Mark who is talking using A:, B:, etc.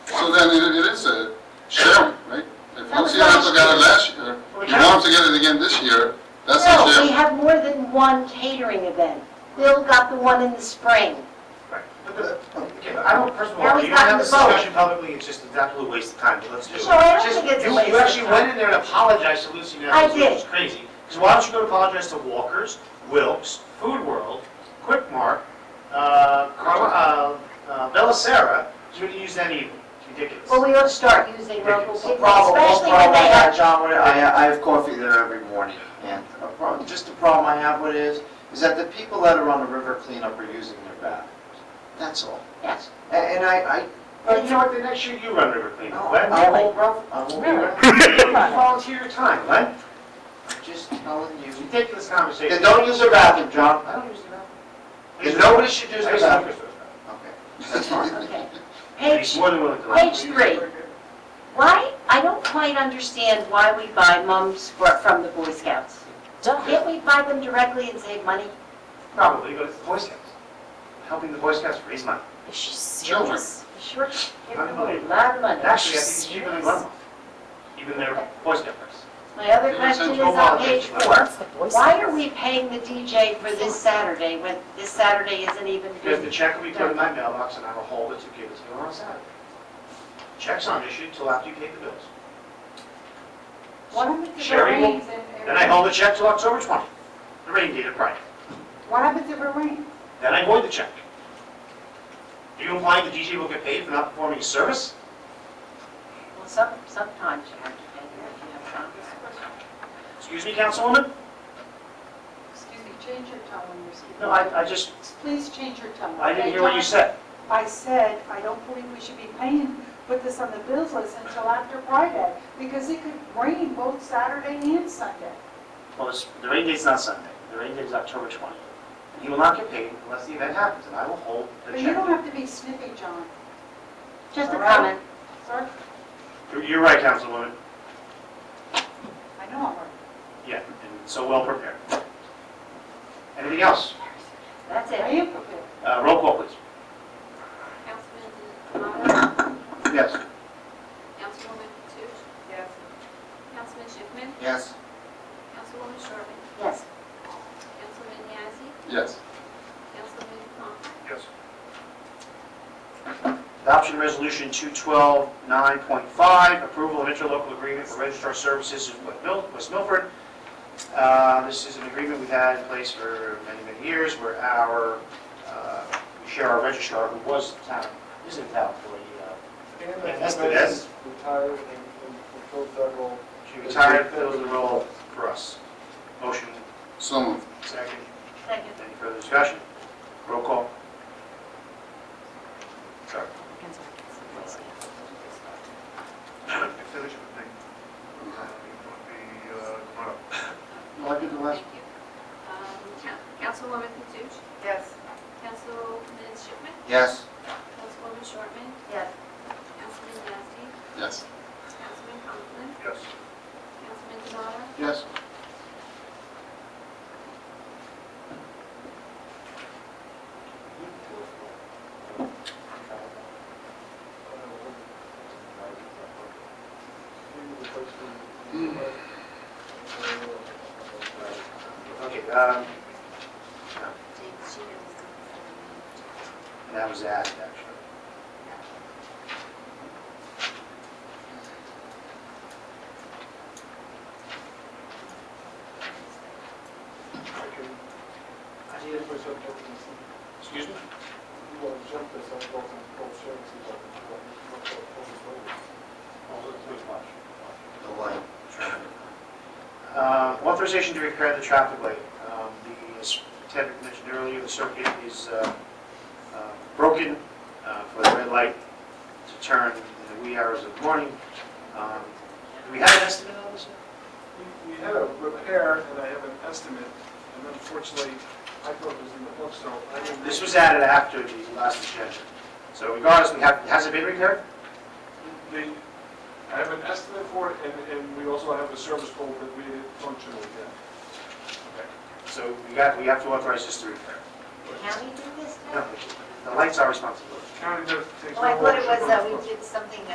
A: So then it it is a sharing, right? If
B: That
A: once
B: was
A: you have
B: last
A: together
B: year.
A: last year, you want them together again this year, that's
B: No,
A: a
B: we
A: sharing.
B: have more than one catering event. Bill got the one in the spring.
C: Right. But the- Okay, I don't, first of
B: Now
C: all,
B: he's
C: you don't have this
B: gotten the vote.
C: discussion publicly, it's just an absolute waste of time, but let's do it.
B: No, I don't
C: Just-
B: think it's a
C: you-
B: waste
C: You
B: of
C: actually
B: time.
C: went in there and apologized to Lucy
B: I
C: Nels, which
B: did.
C: is crazy. Because why don't you go and apologize to Walkers, Wilks, Food World, Quick Mart, uh, Car- uh, uh, Bellicera, you would have used that even, It's ridiculous.
B: Well, we ought to start using local
C: Ridiculous.
B: people,
D: problem, one
B: especially when
D: problem I
B: they
D: got,
B: have,
D: John, with it, I, I have coffee there every morning, and a problem, just the problem I have with it is, is that the people that are on the river cleanup are using their bathrooms. That's all.
B: yes.
D: A- And I, I,
C: But you know what, the next year you run River Cleanup, Len,
D: I won't, rub- I won't be
B: Really?
D: around.
C: you volunteer your time, Len,
D: I'm just telling you.
C: ridiculous
D: Then
C: conversation.
D: don't use their bathroom, John.
C: I don't use the bathroom.
D: Then nobody should use
C: I
D: their
C: use the
D: bathroom.
C: bathroom.
D: Okay, that's fine.
B: Okay.
C: He's
B: Page,
C: more than willing to.
B: page three. Why, I don't quite understand why we buy mums for- from the Boy Scouts. Can't we buy them directly and save money?
C: Probably, but it's the Boy Scouts. Helping the Boy Scouts raise money.
E: Is she
A: Children.
E: serious?
B: Sure, give them a lot of money.
C: And actually, I think it's cheaper than Glenmont, even their Boy Scout price.
B: My other question is on page four.
E: That's the Boy
B: Why are
E: Scouts.
B: we paying the DJ for this Saturday when this Saturday isn't even
C: Because the
B: busy?
C: check will be put in my mailbox and I will hold it to give it to you on Saturday. Checks aren't issued till after you pay the bills.
B: Why don't we
F: If it
C: Sherry will-
F: rains and-
C: Then I hold the check till October 20th, the rain date of Friday.
F: What happens if it rains?
C: Then I void the check. Are you implying the DJ will get paid for not performing his service?
B: Well, some, sometimes you have to pay them if you have contracts.
C: Excuse me, Councilwoman?
F: Excuse me, change your tone when you're speaking.
C: No, I, I just,
F: Please change your tone.
C: I didn't hear what you said.
F: I said, I don't believe we should be paying, put this on the bills list until after Friday, because it could rain both Saturday and Sunday.
C: Well, it's- the rain date's not Sunday. The rain date is October 20th. And He will not get paid unless the event happens, and I will hold the
F: But you
C: check.
F: don't have to be snippy, John.
B: Just a
F: All right.
B: comment.
F: Sir,
C: You're- You're right, Councilwoman.
F: I know I'm right.
C: Yeah, and so well prepared. Anything else?
B: That's
F: I
B: it.
F: am prepared.
C: Uh, Roll call, please.
G: Councilman Demotta,
C: Yes.
G: Councilwoman Toots,
F: Yes.
G: Councilman Schiffman,
D: Yes,
G: Councilwoman Sherman,
B: Yes.
G: Councilman Yazdi,
A: Yes.
G: Councilman Conklin,
C: Yes. Adoption Resolution 212-9.5, approval of interlocal agreement for registrar services in West Mil- West Milford. Uh, This is an agreement we've had in place for many, many years where our, uh, we share our registrar who was town, is in town employee. uh, That's the best.
H: Retired and, and fulfilled that role.
C: She retired, filled the role for us. Motion,
A: So moved.
C: second.
B: Second.
C: Any further discussion? Roll call. Sorry.
I: finish with me. The, uh, come on up.
D: well, I did the last,
G: thank you. Um, Coun- Councilwoman Toots,
F: Yes.
G: Councilman Schiffman,
D: yes,
G: Councilwoman Sherman,
B: Yes.
G: Councilman Yazdi,
A: Yes.
G: Councilman Conklin,
I: Yes.
G: Councilman Demotta,
D: yes.
C: Okay, um,
G: she knows.
C: and that was added, actually.
H: I need to put something up in this.
C: Excuse me?
H: You want to jump this, I'm going to call Sharon, see if I can do that.
D: The light.
C: Uh, Authorization to repair the traffic light. Um, The, as Ted mentioned earlier, the circuit is uh, uh, broken uh, for the red light to turn in the wee hours of the morning. Um, Do we have an estimate on this?
H: We we had a repair, and I have an estimate, and unfortunately, I thought it was in the book, so I didn't.
C: This was added after the last agenda. So regardless, we have, has it been repaired?
H: They, I have an estimate for it, and, and we also have a service call that we functional yet.
C: So we got, we have to authorize this to repair.
B: The county did this
C: No,
B: now?
C: The lights are responsible.
H: County does, takes.
B: Well, I
H: no
B: thought it
H: ownership
B: was
H: of
B: that
H: the
B: we
H: book.
B: did something